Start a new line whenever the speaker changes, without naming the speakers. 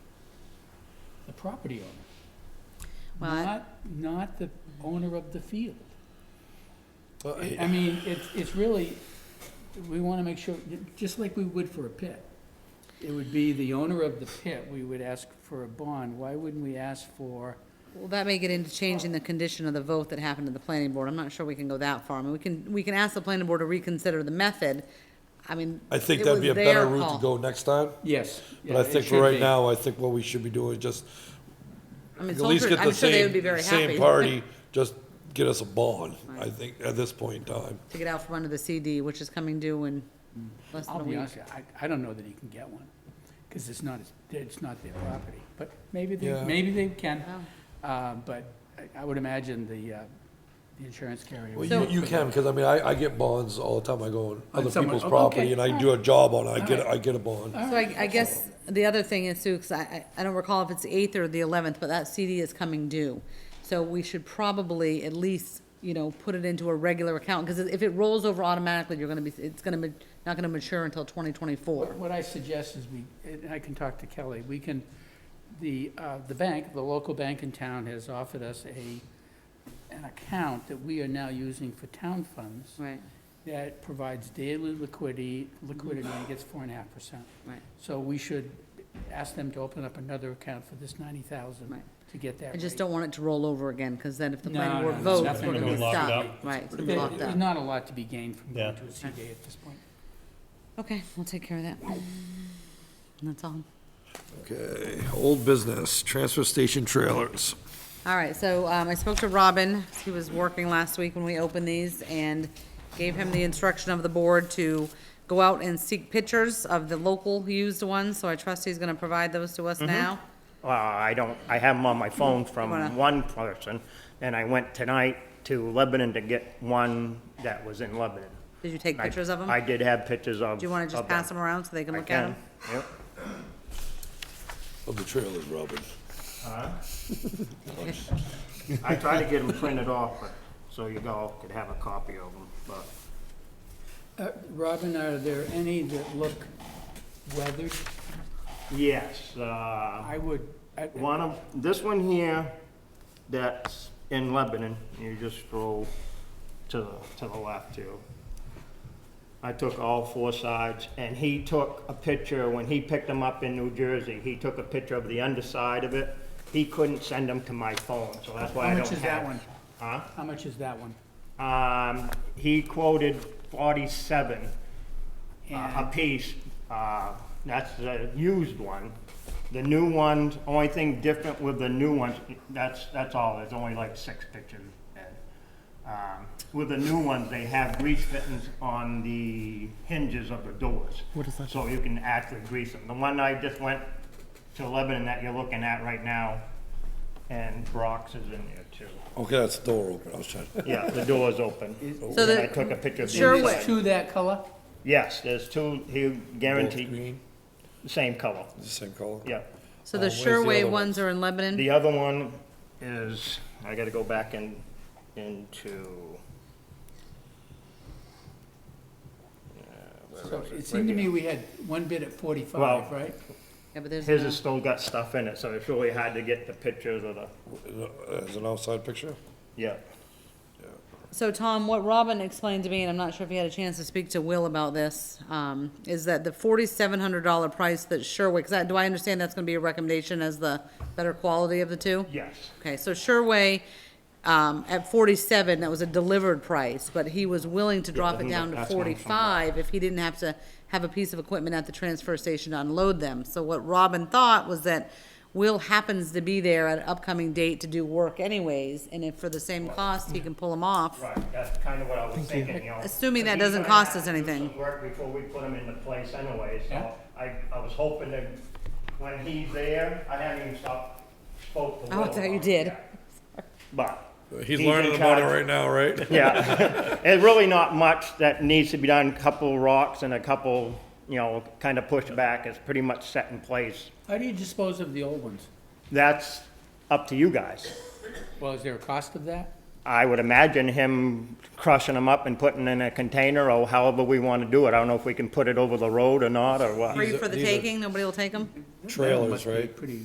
the property owner,
Well, I-
not, not the owner of the field.
Well,
I I mean, it's, it's really, we want to make sure, just like we would for a pit. It would be the owner of the pit, we would ask for a bond. Why wouldn't we ask for,
Well, that may get into changing the condition of the vote that happened at the planning board. I'm not sure we can go that far. I mean, we can, we can ask the planning board to reconsider the method. I mean.
I think
it
that'd be a
was
better
their
route
call.
to go next time,
yes.
but I think for right now, I think what we should be doing is just,
I mean,
at least
Salter,
get
I'm
the
sure they would be
same,
very
same
happy
party, just get us a bond, I think, at this point in time.
to get out from under the CD, which is coming due in less than
I'll
a
be
week.
honest, with you, I, I don't know that he can get one, because it's not, his- it's not their property. But maybe they,
Yeah.
maybe they can,
Oh.
Uh, but I- I would imagine the, uh, the insurance carrier.
Well,
would
you,
look
you
for
can, because I mean, I, I get bonds all the time, I go on other
someone-
Oh,
people's
okay,
property and I do a job on it, I get,
alright.
I get a bond.
So I, I guess the other thing is too, because I, I- I don't recall if it's the eighth or the eleventh, but that CD is coming due. So we should probably at least, you know, put it into a regular account, because if it rolls over automatically, you're gonna be, it's gonna, ma- not gonna mature until twenty twenty-four.
What what I suggest is we, and I can talk to Kelly, we can, the, uh, the bank, the local bank in town has offered us a, an account that we are now using for town funds
Right,
that provides daily liquidity, liquidity and gets four and a half percent.
right.
So we should ask them to open up another account for this ninety thousand
Right.
to get that
I just
rate.
don't want it to roll over again, because then if the
No,
planning board
no,
votes,
nothing
we're
will
gonna
be
be
locked
stopped.
up.
Right, it's gonna be
There-
locked
There's
up.
not a lot to be gained from going
Yeah.
to a CD at this point.
Okay, we'll take care of that. That's all.
Okay, old business, transfer station trailers.
All right, so um, I spoke to Robin, he was working last week when we opened these, and gave him the instruction of the board to go out and seek pictures of the local used ones, so I trust he's gonna provide those to us now.
Well, Uh, I don't, I have them on my phone from one person, and I went tonight to Lebanon to get one that was in Lebanon.
Did you take
I-
pictures of them?
I did have pictures of.
Do you wanna just pass them around so they can
I
look at them?
can, yep.
Of the trailers, Robin.
I tried to get them printed off, but- so you all could have a copy of them, but
Uh, Robin, are there any that look weathered?
yes, uh,
I would, I-
One of, this one here, that's in Lebanon, you just scroll to, the- to the left too. I took all four sides, and he took a picture, when he picked them up in New Jersey, he took a picture of the underside of it. He couldn't send them to my phone, so that's why
How
I
much
don't have.
is that one?
Huh?
How much is that one?
Um, he quoted forty-seven uh, a
And
piece. Uh, that's the used one. The new ones, only thing different with the new ones, that's, that's all, there's only like six pictures. Ed. Um, With the new ones, they have grease fittings on the hinges of the doors. What is that? So you can actually grease them. The one I just went to Lebanon that you're looking at right now, and Brock's is in there too.
Okay, that's the door open, I was trying.
Yeah, the door's open.
So
And I
the,
took a picture of the
Sure,
inside.
is two that color?
Yes, there's two, he guaranteed,
Green,
the same color,
the same color.
yeah.
so the
Uh, where's the other
Sherway
ones?
ones are in Lebanon?
The other one is, I gotta go back in, into,
So it seemed to me we had one bid at forty-five,
Well,
right?
Yeah, but there's
his
no-
has still got stuff in it, so it's really hard to get the pictures of the,
As an outside picture?
yeah.
So, Tom, what Robin explained to me, and I'm not sure if you had a chance to speak to Will about this, um, is that the forty-seven hundred dollar price that Sherway, 'cause I do I understand that's gonna be a recommendation as the better quality of the two?
Yes,
Okay, so Sherway, um, at forty-seven, that was a delivered price, but he was willing to drop it down to
that's what I'm talking about.
forty-five if he didn't have to have a piece of equipment at the transfer station to unload them. So what Robin thought was that Will happens to be there at an upcoming date to do work anyways, and if for the same cost, he can pull them off.
right, that's kind of what I was thinking, you know.
Assuming that
But he's
doesn't
gonna
cost
have
us
to do
anything.
some Work before we put him into place anyway,
Yeah.
so I, I was hoping that when he's there, I haven't even stopped, spoke to
Oh, I
Will.
thought you
about it
did.
yet. But
He's
in
learning about it
charge.
right now, right?
Yeah, there's really not much that needs to be done, a couple rocks and a couple, you know, kind of pushed back, it's pretty much set in place.
How do you dispose of the old ones?
That's up to you guys.
Well, is there a cost of that?
I would imagine him crushing them up and putting in a container, or however we want to do it, I don't know if we can put it over the road or not, or what.
Free
These are-
for the
these are-
taking, nobody will take them?
Trailers,
Must be
right?
Pretty